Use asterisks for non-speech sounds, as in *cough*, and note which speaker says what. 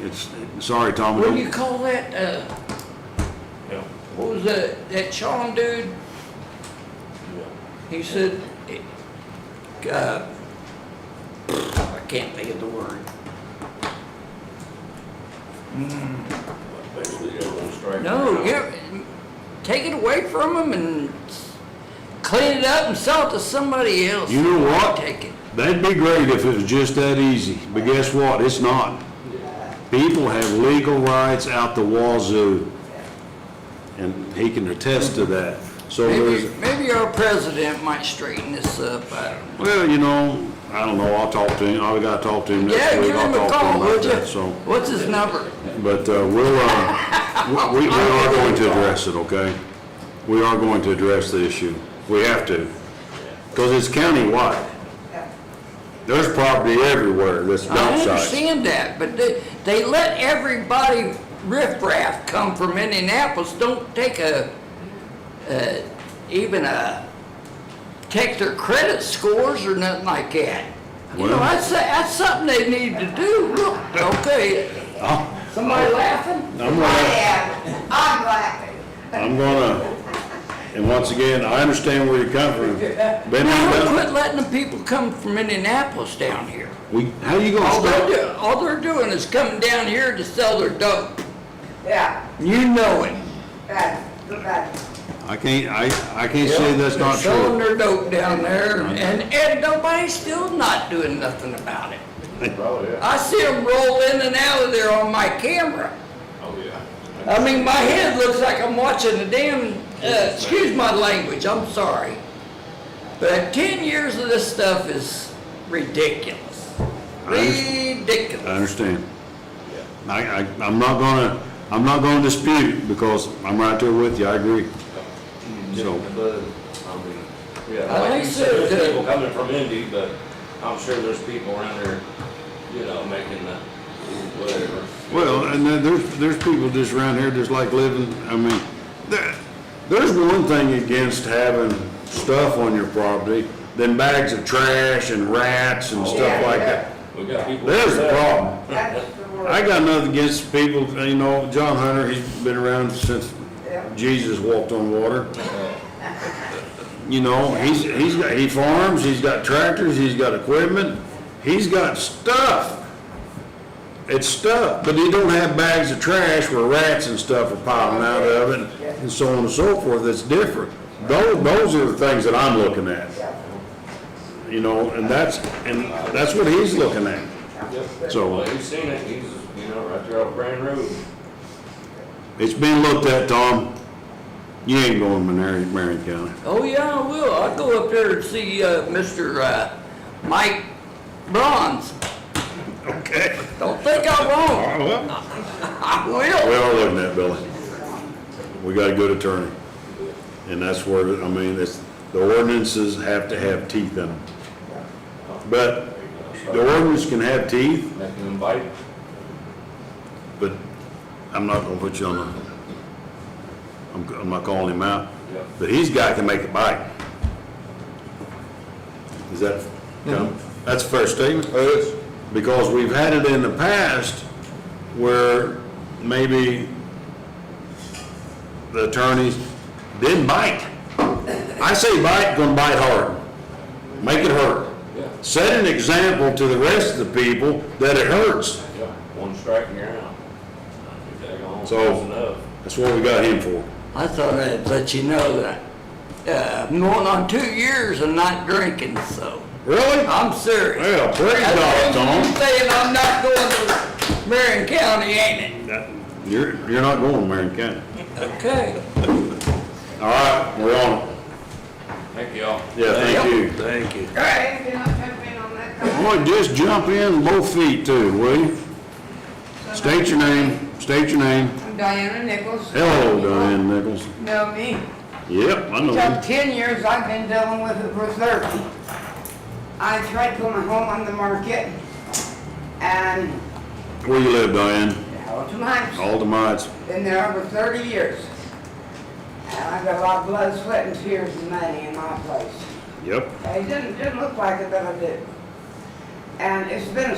Speaker 1: It's, sorry, Tom,
Speaker 2: What do you
Speaker 1: don't-
Speaker 2: call that, uh,
Speaker 3: Yeah,
Speaker 2: what was that, that Sean dude?
Speaker 3: yeah.
Speaker 2: He said, it- uh, I can't think of the word.
Speaker 3: Basically, it was straight.
Speaker 2: No, yeah, take it away from them and clean it up and sell it to somebody else.
Speaker 1: You know what?
Speaker 2: Take it.
Speaker 1: that'd be great if it was just that easy, but guess what? It's not. People have legal rights out the wazoo, and he can attest to that. So
Speaker 2: Maybe,
Speaker 1: there's,
Speaker 2: maybe our president might straighten this up, I don't know.
Speaker 1: well, you know, I don't know, I'll talk to him, I gotta talk to him next
Speaker 2: Yeah,
Speaker 1: week.
Speaker 2: give
Speaker 1: I'll
Speaker 2: him a
Speaker 1: talk to him
Speaker 2: call,
Speaker 1: about
Speaker 2: would you?
Speaker 1: that. So,
Speaker 2: What's his number?
Speaker 1: but uh, we'll, uh, we, we are going to address it, okay? We are going to address the issue. We have to, because it's countywide. There's property everywhere that's
Speaker 2: I
Speaker 1: dump sites.
Speaker 2: understand that, but they, they let everybody riffraff come from Indianapolis, don't take a, uh, even a, take their credit scores or nothing like that. You know,
Speaker 1: Well-
Speaker 2: that's, that's something they need to do, look, okay,
Speaker 1: I'm
Speaker 2: somebody laughing?
Speaker 1: I'm
Speaker 4: I
Speaker 1: gonna,
Speaker 4: am, I'm laughing.
Speaker 1: I'm gonna, and once again, I understand where you're coming from. Been
Speaker 2: No,
Speaker 1: down-
Speaker 2: quit letting the people come from Indianapolis down here.
Speaker 1: We, how you
Speaker 2: All
Speaker 1: gonna
Speaker 2: they're,
Speaker 1: stop?
Speaker 2: do- all they're doing is coming down here to sell their dope.
Speaker 4: Yeah,
Speaker 2: You know it.
Speaker 4: bad, bad.
Speaker 1: I can't, I, I can't say that's not
Speaker 2: They're Selling
Speaker 1: true.
Speaker 2: their dope down there, and, and nobody's still not doing nothing about it.
Speaker 3: Oh, yeah,
Speaker 2: I see them roll in and out of there on my camera.
Speaker 3: oh, yeah.
Speaker 2: I mean, my head looks like I'm watching a damn, uh, excuse my language, I'm sorry. But ten years of this stuff is ridiculous.
Speaker 1: I understand. I
Speaker 2: Ridiculous.
Speaker 1: understand.
Speaker 3: Yeah.
Speaker 1: I, I, I'm not gonna, I'm not gonna dispute it because I'm right there with you, I agree. So,
Speaker 3: But, I mean, yeah,
Speaker 2: I
Speaker 3: like
Speaker 2: think
Speaker 3: you
Speaker 2: so,
Speaker 3: said,
Speaker 2: too.
Speaker 3: there's people coming from Indy, but I'm sure there's people around there, you know, making the, whatever.
Speaker 1: well, and then there's, there's people just around here just like living, I mean, there, there's one thing against having stuff on your property than bags of trash and rats and stuff like that.
Speaker 3: We got people.
Speaker 1: There's a problem.
Speaker 4: That's the word.
Speaker 1: I got nothing against people, you know, John Hunter, he's been around since Jesus walked on water. You know, he's, he's got, he farms, he's got tractors, he's got equipment, he's got stuff. It's stuff, but he don't have bags of trash where rats and stuff are piling out of it and so on and so forth, that's different. Those, those are the things that I'm looking at. You know, and that's, and that's what he's looking at. So-
Speaker 3: Well, he's seen it, he's, you know, right there on Brand Road.
Speaker 1: It's been looked at, Tom. You ain't going to Marion, Marion County.
Speaker 2: Oh, yeah, I will. I'll go up there and see, uh, Mr. uh, Mike Bronze.
Speaker 1: Okay.
Speaker 2: Don't think I won't.
Speaker 1: Well,
Speaker 2: *laughs* I will.
Speaker 1: we are looking at Billy. We got a good attorney. And that's where, I mean, it's, the ordinances have to have teeth in them. But
Speaker 3: You know, start
Speaker 1: the ordinance can have teeth,
Speaker 3: Making them bite.
Speaker 1: but I'm not gonna put you on the, I'm, I'm not calling him out.
Speaker 3: Yeah.
Speaker 1: But he's the guy that can make it bite. Is that, that's a fair statement? Because we've had it in the past where maybe the attorneys didn't bite. I say bite, gonna bite hard. Make it hurt.
Speaker 3: Yeah.
Speaker 1: Set an example to the rest of the people that it hurts.
Speaker 3: Yeah, one strike and you're out. They're gone,
Speaker 1: So-
Speaker 3: that's enough.
Speaker 1: That's what we got him for.
Speaker 2: I thought I'd let you know that uh, I'm going on two years and not drinking, so
Speaker 1: Really?
Speaker 2: I'm serious.
Speaker 1: Well, praise God,
Speaker 2: That's what
Speaker 1: Tom.
Speaker 2: you Saying I'm not going to Marion County, ain't it?
Speaker 1: You're, you're not going to Marion County.
Speaker 2: Okay.
Speaker 1: All right, we're on it.
Speaker 3: Thank y'all.
Speaker 1: Yeah, thank you.
Speaker 2: Thank you.
Speaker 4: Hey, you know, jump in on that.
Speaker 1: Boy, just jump in both feet too, will you? State your name, state your name.
Speaker 4: I'm Diana Nichols.
Speaker 1: Hello, Diane Nichols.
Speaker 4: Know me.
Speaker 1: Yep, I know
Speaker 4: So
Speaker 1: you.
Speaker 4: ten years I've been dealing with it for thirty. I tried to put my home on the market and
Speaker 1: Where you live, Diane?
Speaker 4: held to mine.
Speaker 1: Aldamites.
Speaker 4: Been there over thirty years. And I've got a lot of blood, sweat and tears and money in my place.
Speaker 1: Yep.
Speaker 4: It didn't, didn't look like it, but I did. And it's been a